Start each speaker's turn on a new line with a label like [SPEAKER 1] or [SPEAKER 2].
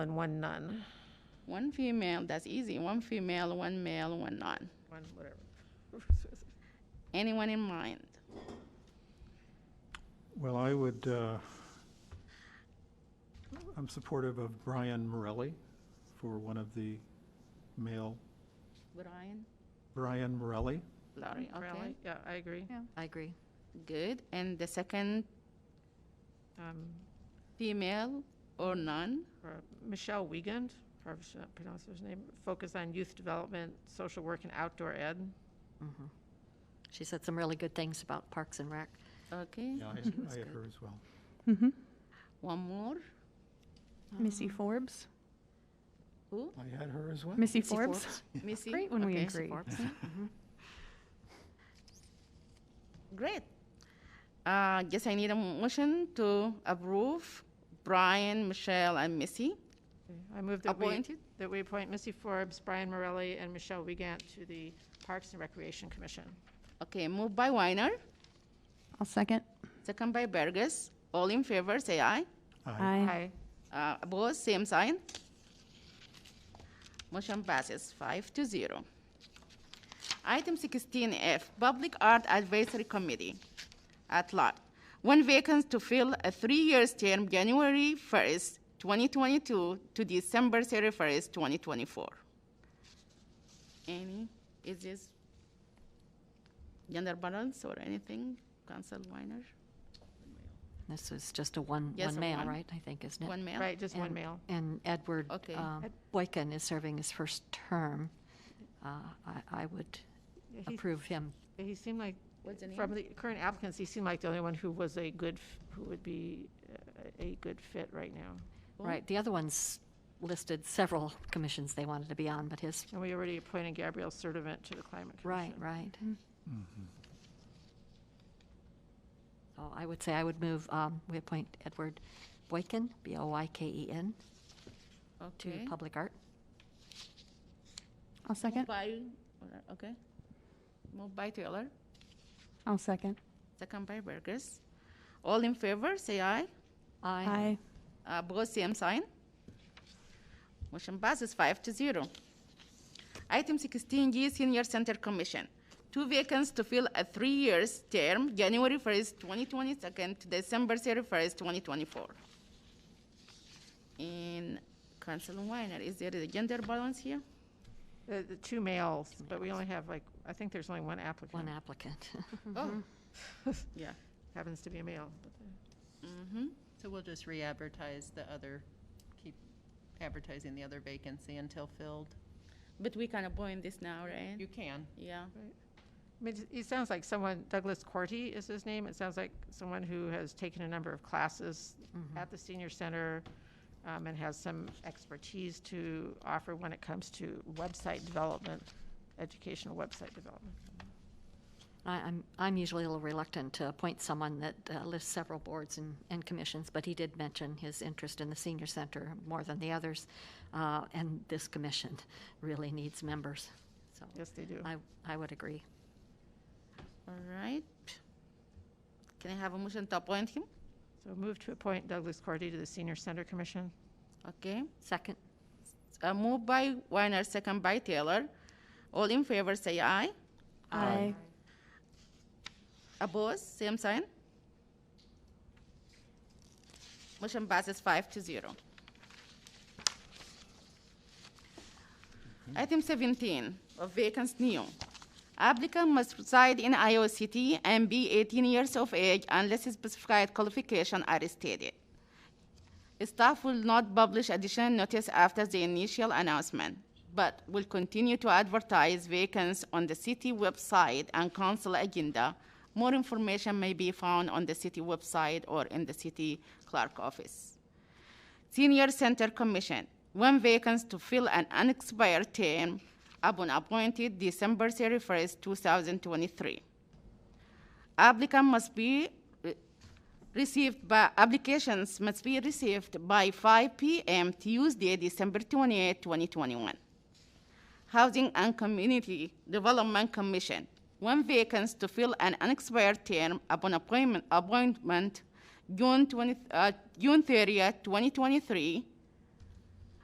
[SPEAKER 1] and one none.
[SPEAKER 2] One female, that's easy. One female, one male, one non.
[SPEAKER 1] One, whatever.
[SPEAKER 2] Anyone in mind?
[SPEAKER 3] Well, I would, uh, I'm supportive of Brian Morelli for one of the male,
[SPEAKER 2] Brian?
[SPEAKER 3] Brian Morelli.
[SPEAKER 2] Laurie, okay.
[SPEAKER 1] Really? Mm, Yeah, I agree.
[SPEAKER 4] I agree.
[SPEAKER 2] Good. And the second
[SPEAKER 1] Um,
[SPEAKER 2] female or none?
[SPEAKER 1] for Michelle Wiegand, probably should not pronounce her name, focus on youth development, social work, and outdoor ed.
[SPEAKER 4] She said some really good things about Parks and Rec.
[SPEAKER 2] Okay.
[SPEAKER 3] Yeah, I I had her as well.
[SPEAKER 2] One more?
[SPEAKER 5] Missy Forbes.
[SPEAKER 2] Who?
[SPEAKER 3] I had her as well.
[SPEAKER 5] Missy,
[SPEAKER 4] Missy
[SPEAKER 5] Forbes.
[SPEAKER 4] Forbes.
[SPEAKER 2] Missy?
[SPEAKER 5] Great when we
[SPEAKER 2] Okay.
[SPEAKER 5] agree. Mm-hmm.
[SPEAKER 2] Great. Uh, guess I need a motion to approve Brian, Michelle, and Missy.
[SPEAKER 1] Okay, I move that we,
[SPEAKER 2] Appointed?
[SPEAKER 1] that we appoint Missy Forbes, Brian Morelli, and Michelle Wiegand to the Parks and Recreation Commission.
[SPEAKER 2] Okay, moved by Weiner,
[SPEAKER 5] I'll second.
[SPEAKER 2] second by Burgess. All in favor, say aye.
[SPEAKER 3] I-
[SPEAKER 5] Aye.
[SPEAKER 1] Aye.
[SPEAKER 2] Uh, Opposed, same sign. Motion passes five to zero. Item sixteen F, Public Art Advisory Committee, at large. One vacancy to fill a three-year term, January first, twenty twenty-two to December thirty-first, twenty twenty-four. Any, is this gender balance or anything, Council Weiner?
[SPEAKER 4] This is just a one,
[SPEAKER 2] Yes,
[SPEAKER 4] one
[SPEAKER 2] a
[SPEAKER 4] male,
[SPEAKER 2] one.
[SPEAKER 4] right, I think, isn't it?
[SPEAKER 2] One male?
[SPEAKER 1] Right, just one
[SPEAKER 4] And-
[SPEAKER 1] male.
[SPEAKER 4] And Edward
[SPEAKER 2] Okay.
[SPEAKER 4] uh, Boykin is serving his first term. Uh, I, I would
[SPEAKER 1] Yeah, he-
[SPEAKER 4] approve him.
[SPEAKER 1] He seemed like,
[SPEAKER 2] What's the
[SPEAKER 1] from the current applicants, he seemed like the only one who was a good, f- who would be uh, a good fit right now.
[SPEAKER 4] Right, the other ones listed several commissions they wanted to be on, but his,
[SPEAKER 1] And we already appointed Gabrielle Sertivant to the Climate
[SPEAKER 4] right,
[SPEAKER 1] Commission.
[SPEAKER 4] right.
[SPEAKER 2] Mm-hmm.
[SPEAKER 4] Mm-hmm. So I would say I would move, um, we appoint Edward Boykin, B-O-Y-K-E-N, E to
[SPEAKER 2] Okay.
[SPEAKER 4] Public Art.
[SPEAKER 5] I'll second.
[SPEAKER 2] By, okay. Moved by Taylor,
[SPEAKER 5] I'll second.
[SPEAKER 2] second by Burgess. All in favor, say aye.
[SPEAKER 5] Aye.
[SPEAKER 2] Uh, Opposed, same sign. Motion passes five to zero. Item sixteen G, Senior Center Commission. Two vacancies to fill a three years term, January first, twenty twenty-second to December thirty-first, twenty twenty-four. And Councilor Weiner, is there a gender balance here?
[SPEAKER 1] Uh, The, the two males, but we only have like, I think there's only one applicant.
[SPEAKER 4] One applicant.
[SPEAKER 2] Oh, yeah.
[SPEAKER 1] Happens to be a male. but, uh,
[SPEAKER 2] Mm-hmm.
[SPEAKER 6] So we'll just re-advertise the other, keep advertising the other vacancy until filled?
[SPEAKER 2] But we can appoint this now, right?
[SPEAKER 6] You can.
[SPEAKER 2] Yeah.
[SPEAKER 1] I mean, it sounds like someone, Douglas Corty is his name. It sounds like someone who has taken a number of classes at the senior center um, and has some expertise to offer when it comes to website development, educational website development.
[SPEAKER 4] I, I'm, I'm usually a little reluctant to appoint someone that uh, lists several boards and, and commissions, but he did mention his interest in the senior center more than the others. Uh, and this commission really needs members, so
[SPEAKER 1] Yes, they do.
[SPEAKER 4] I, I would agree.
[SPEAKER 2] All right. Can I have a motion to appoint him?
[SPEAKER 1] So move to appoint Douglas Corty to the senior center commission.
[SPEAKER 2] Okay.
[SPEAKER 4] Second?
[SPEAKER 2] A move by Weiner, second by Taylor. All in favor, say aye.
[SPEAKER 5] Aye.
[SPEAKER 2] Opposed, same sign. Motion passes five to zero. Item seventeen, of vacancy new. Applicant must reside in Iowa City and be eighteen years of age unless specified qualifications are stated. Staff will not publish additional notice after the initial announcement, but will continue to advertise vacancies on the city website and council agenda. More information may be found on the city website or in the city clerk office. Senior Center Commission, one vacancy to fill an unexpired term upon appointed December 31st, 2023. Applicant must be re- received by, applications must be received by 5 p.m. Tuesday, December 28, 2021. Housing and Community Development Commission, one vacancy to fill an unexpired term upon appointment, appointment June 20, uh, June 30th, 2023,